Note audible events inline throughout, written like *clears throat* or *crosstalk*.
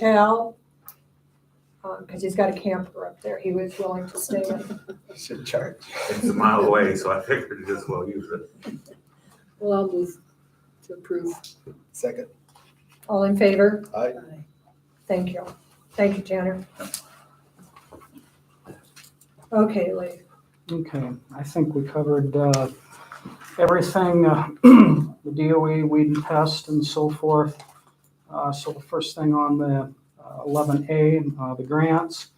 motel, because he's got a camper up there. He was willing to stay in. Should charge. It's a mile away, so I figured just well use it. Well, I'll move to approve. uh, Second. All in favor? Aye. Thank you. Thank you, Tanner. Okay, Lee. Okay, I think we covered uh, everything, uh, *clears throat* the DOE, weed and pest and so forth. Uh, So the first thing on the uh, 11A, uh, the grants.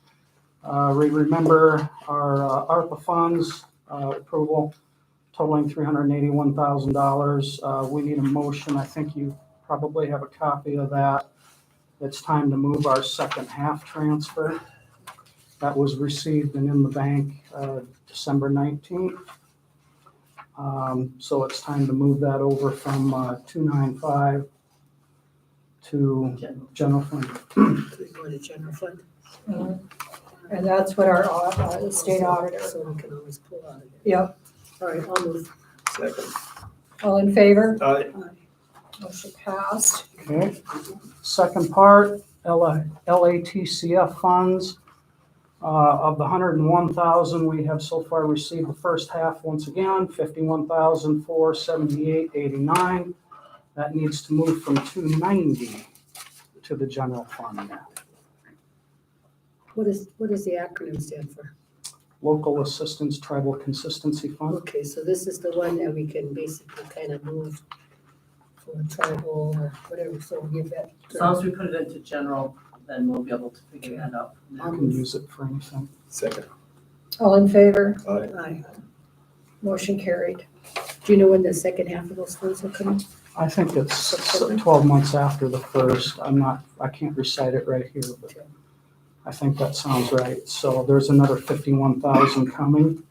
Uh, We remember our uh, ARPA funds uh, approval totaling $381,000. Uh, We need a motion, I think you probably have a copy of that. It's time to move our second half transfer. That was received and in the bank uh, December 19th. Um, So it's time to move that over from uh, 295 to General. general fund. Do we go to general fund? And that's what our au- uh, state auditor, So we can always pull out of it. Yep. All right, I'll move. Second. all in favor? Aye. Motion passed. Okay. Second part, LA LATCF funds. Uh, Of the 101,000 we have so far received, the first half, once again, 51,478.89. That needs to move from 290 to the general fund now. What is, what does the acronym stand for? Local Assistance Tribal Consistency Fund. Okay, so this is the one that we can basically kind of move for tribal or whatever, so we'll give that. uh, As long as we put it into general, then we'll be able to figure that out. from I there. can use it for anything. Second. All in favor? Aye. Aye. Motion carried. Do you know when the second half of those funds will come? I think it's 12 months after the first. I'm not, I can't recite it right here, but I think that sounds right. So there's another 51,000 coming.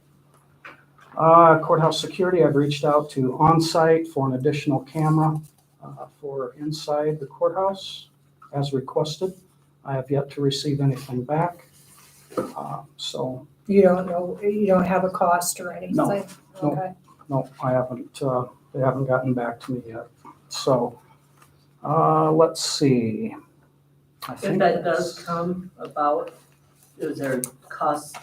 Uh, Courthouse security, I've reached out to on-site for an additional camera uh, for inside the courthouse as requested. I have yet to receive anything back. Uh, So You don't know, you don't have a cost or anything? No, no. Okay. No, I haven't, uh, they haven't gotten back to me yet. So, uh, let's see. I If think that does that's- come about, is there costs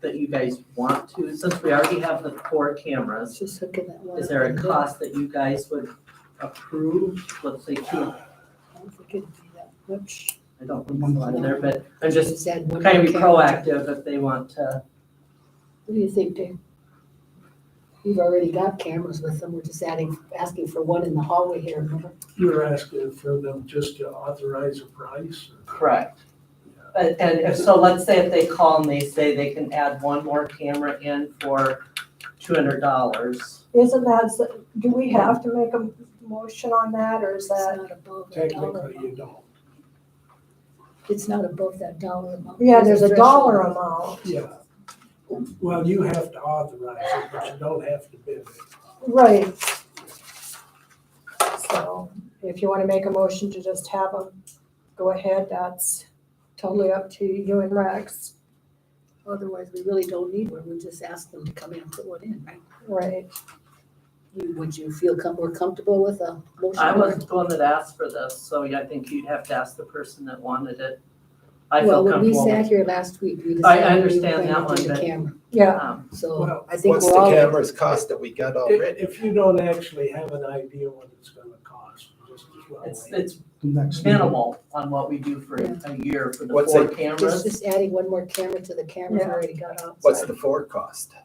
that you guys want to, since we already have the four cameras? Just hooking that one. Is there a up. cost that you guys would approve, let's say two, I don't think it'd be that much. I don't think it's a lot in there, but I'm just Just add one kind of be more character. proactive if they want to. What do you think, Dave? You've already got cameras with them, we're just adding, asking for one in the hallway here, remember? You were asking for them just to authorize a price? Correct. But, and if, so let's say if they call and they say they can add one more camera in for two hundred dollars. Isn't that, do we have to make a motion on that or is It's that? not above that dollar. Technically, you don't. It's not above that dollar amount. Yeah, there's a dollar threshold. amount. Yeah. Well, you have to authorize it, but you don't have to bid it. Right. So if you want to make a motion to just have them, go ahead, that's totally up to you and Rex. Otherwise, we really don't need one, we just ask them to come in and put one in, right? Right, You- Would you feel com- more comfortable with a motion? I wasn't the one that asked for this, so yeah, I think you'd have to ask the person that wanted it. I Well, feel when we comfortable. sat here last week, we I- I decided. we understand were going that to do one, the but- camera. yeah, Um, So Well, I think What's we're the all. camera's cost that we got already? If you don't actually have an idea what it's gonna cost, you just as well It's, wait. it's Next meeting. minimal on what we do for a year for the What's four it- It's cameras. just adding one more camera to the camera we Yeah. already got outside. What's the forecast?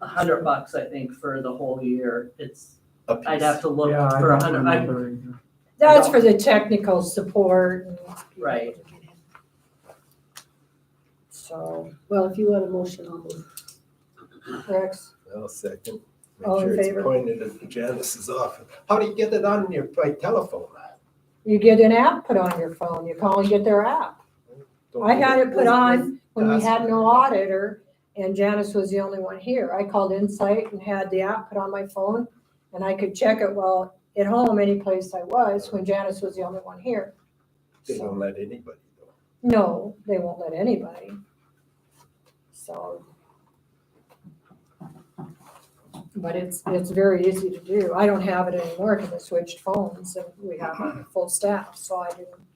A hundred bucks, I think, for the whole year. It's, A piece? I'd have to look Yeah, I for a don't hundred, I'm, remember either. that's for the technical support, and right. so, Well, if you want a motion, I'll move. Rex, Well, second. Make All in sure it's favor? Pointed at Janice's office. How do you get it on your, by telephone? you get an app put on your phone, you call and get their app. Don't I had you- it put on when we had no auditor, and Janice was the only one here. I called Insight and had the app put on my phone, and I could check it while at home, any place I was, when Janice was the only one here. They So, don't let anybody do it. No, they won't let anybody. So. But it's, it's very easy to do. I don't have it anymore because I switched phones and we have a full staff, so I didn't